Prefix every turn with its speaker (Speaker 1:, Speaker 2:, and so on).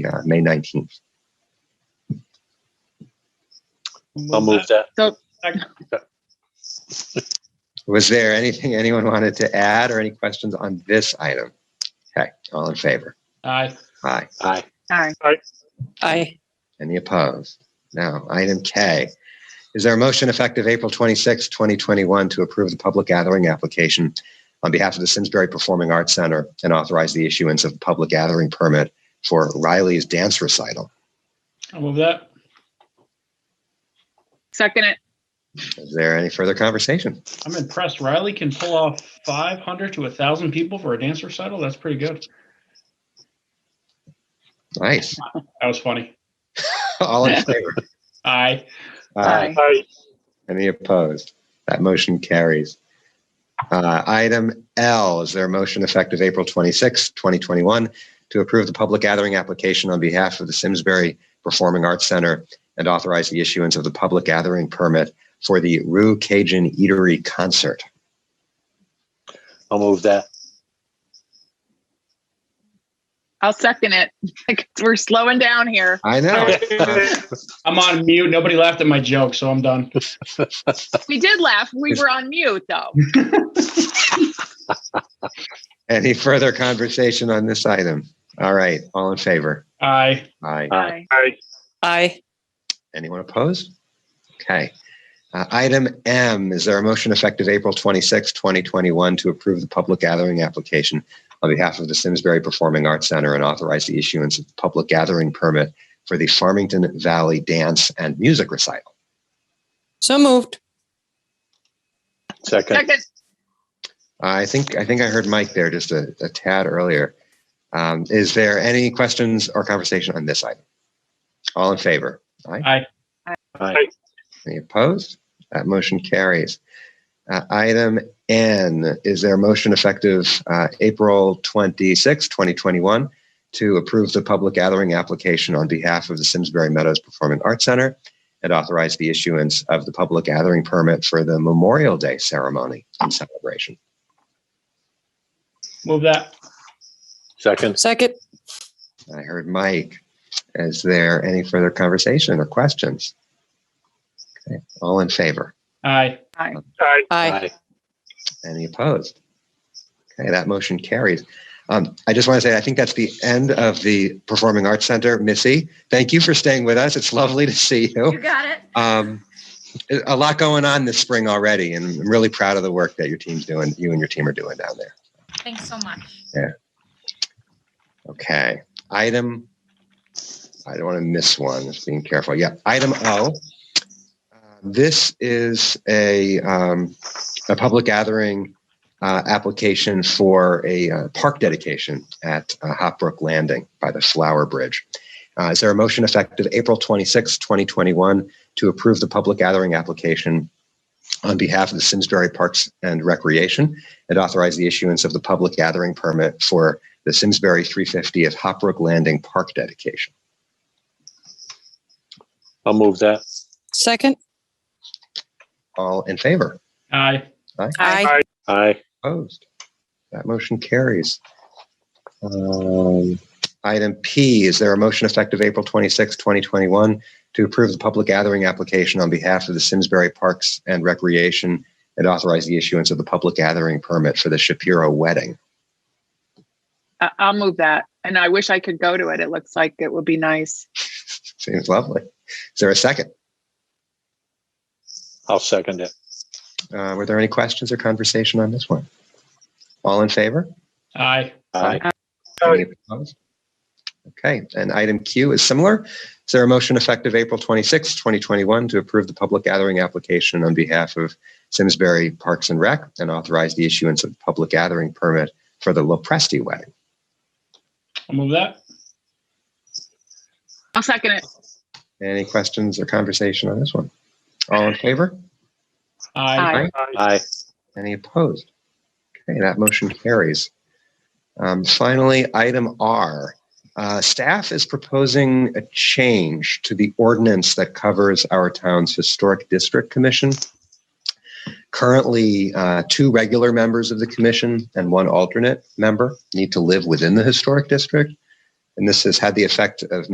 Speaker 1: yeah, May 19th.
Speaker 2: I'll move that.
Speaker 1: Was there anything anyone wanted to add or any questions on this item? Okay, all in favor?
Speaker 3: Aye.
Speaker 1: Aye.
Speaker 2: Aye.
Speaker 4: Aye.
Speaker 5: Aye.
Speaker 1: Any opposed? No. Item K. Is there a motion effective April 26, 2021 to approve the public gathering application on behalf of the Simsbury Performing Arts Center and authorize the issuance of a public gathering permit for Riley's dance recital?
Speaker 3: I'll move that.
Speaker 4: Second it.
Speaker 1: Is there any further conversation?
Speaker 3: I'm impressed. Riley can pull off 500 to 1,000 people for a dance recital. That's pretty good.
Speaker 1: Nice.
Speaker 3: That was funny.
Speaker 1: All in favor?
Speaker 3: Aye.
Speaker 4: Aye.
Speaker 2: Aye.
Speaker 1: Any opposed? That motion carries. Uh, Item L, is there a motion effective April 26, 2021, to approve the public gathering application on behalf of the Simsbury Performing Arts Center and authorize the issuance of the public gathering permit for the Rue Cajun Eatery Concert?
Speaker 2: I'll move that.
Speaker 4: I'll second it. We're slowing down here.
Speaker 1: I know.
Speaker 3: I'm on mute. Nobody laughed at my joke, so I'm done.
Speaker 4: We did laugh. We were on mute though.
Speaker 1: Any further conversation on this item? All right, all in favor?
Speaker 3: Aye.
Speaker 1: Aye.
Speaker 2: Aye.
Speaker 5: Aye.
Speaker 1: Anyone opposed? Okay. Uh, Item M, is there a motion effective April 26, 2021 to approve the public gathering application on behalf of the Simsbury Performing Arts Center and authorize the issuance of public gathering permit for the Farmington Valley Dance and Music Recital?
Speaker 5: So moved.
Speaker 2: Second.
Speaker 4: Second,
Speaker 1: I think, I think I heard Mike there just a a tad earlier. Um, Is there any questions or conversation on this item? All in favor?
Speaker 2: Aye.
Speaker 1: Any opposed? That motion carries. Uh, Item N, is there a motion effective uh, April 26, 2021, to approve the public gathering application on behalf of the Simsbury Meadows Performing Arts Center and authorize the issuance of the public gathering permit for the Memorial Day ceremony and celebration?
Speaker 3: Move that.
Speaker 2: Second.
Speaker 5: Second.
Speaker 1: I heard Mike. Is there any further conversation or questions? Okay, all in favor?
Speaker 3: Aye.
Speaker 5: Aye.
Speaker 1: Any opposed? Okay, that motion carries. Um, I just want to say, I think that's the end of the Performing Arts Center. Missy, thank you for staying with us. It's lovely to see
Speaker 6: You
Speaker 1: you.
Speaker 6: got it.
Speaker 1: Um, a lot going on this spring already, and I'm really proud of the work that your team's doing, you and your team are doing down there.
Speaker 6: Thanks so much.
Speaker 1: Okay, item, I don't want to miss one, just being careful. Yeah, item O. Uh, This is a, um, a public gathering, uh, application for a uh, park dedication at uh, Hop Brook Landing by the Flower Bridge. Uh, is there a motion effective April 26, 2021 to approve the public gathering application on behalf of the Simsbury Parks and Recreation and authorize the issuance of the public gathering permit for the Simsbury 350th Hopbrook Landing Park dedication.
Speaker 2: I'll move that.
Speaker 5: Second.
Speaker 1: All in favor?
Speaker 3: Aye.
Speaker 5: Aye.
Speaker 2: Aye.
Speaker 1: Opposed? That motion carries. Um, Item P, is there a motion effective April 26, 2021 to approve the public gathering application on behalf of the Simsbury Parks and Recreation and authorize the issuance of the public gathering permit for the Shapiro wedding?
Speaker 4: I- I'll move that. And I wish I could go to it. It looks like it would be nice.
Speaker 1: Seems lovely. Is there a second?
Speaker 2: I'll second it.
Speaker 1: Uh, Were there any questions or conversation on this one? All in favor?
Speaker 3: Aye.
Speaker 2: Aye.
Speaker 1: Any opposed? Okay, and item Q is similar. Is there a motion effective April 26, 2021 to approve the public gathering application on behalf of Simsbury Parks and Rec and authorize the issuance of public gathering permit for the Lopresti wedding?
Speaker 3: I'll move that.
Speaker 4: I'll second it.
Speaker 1: Any questions or conversation on this one? All in favor?
Speaker 3: Aye.
Speaker 4: Aye.
Speaker 2: Aye.
Speaker 1: Any opposed? Okay, that motion carries. Um, Finally, item R. Uh, Staff is proposing a change to the ordinance that covers our town's Historic District Commission. Currently, uh, two regular members of the commission and one alternate member need to live within the Historic District. And this has had the effect of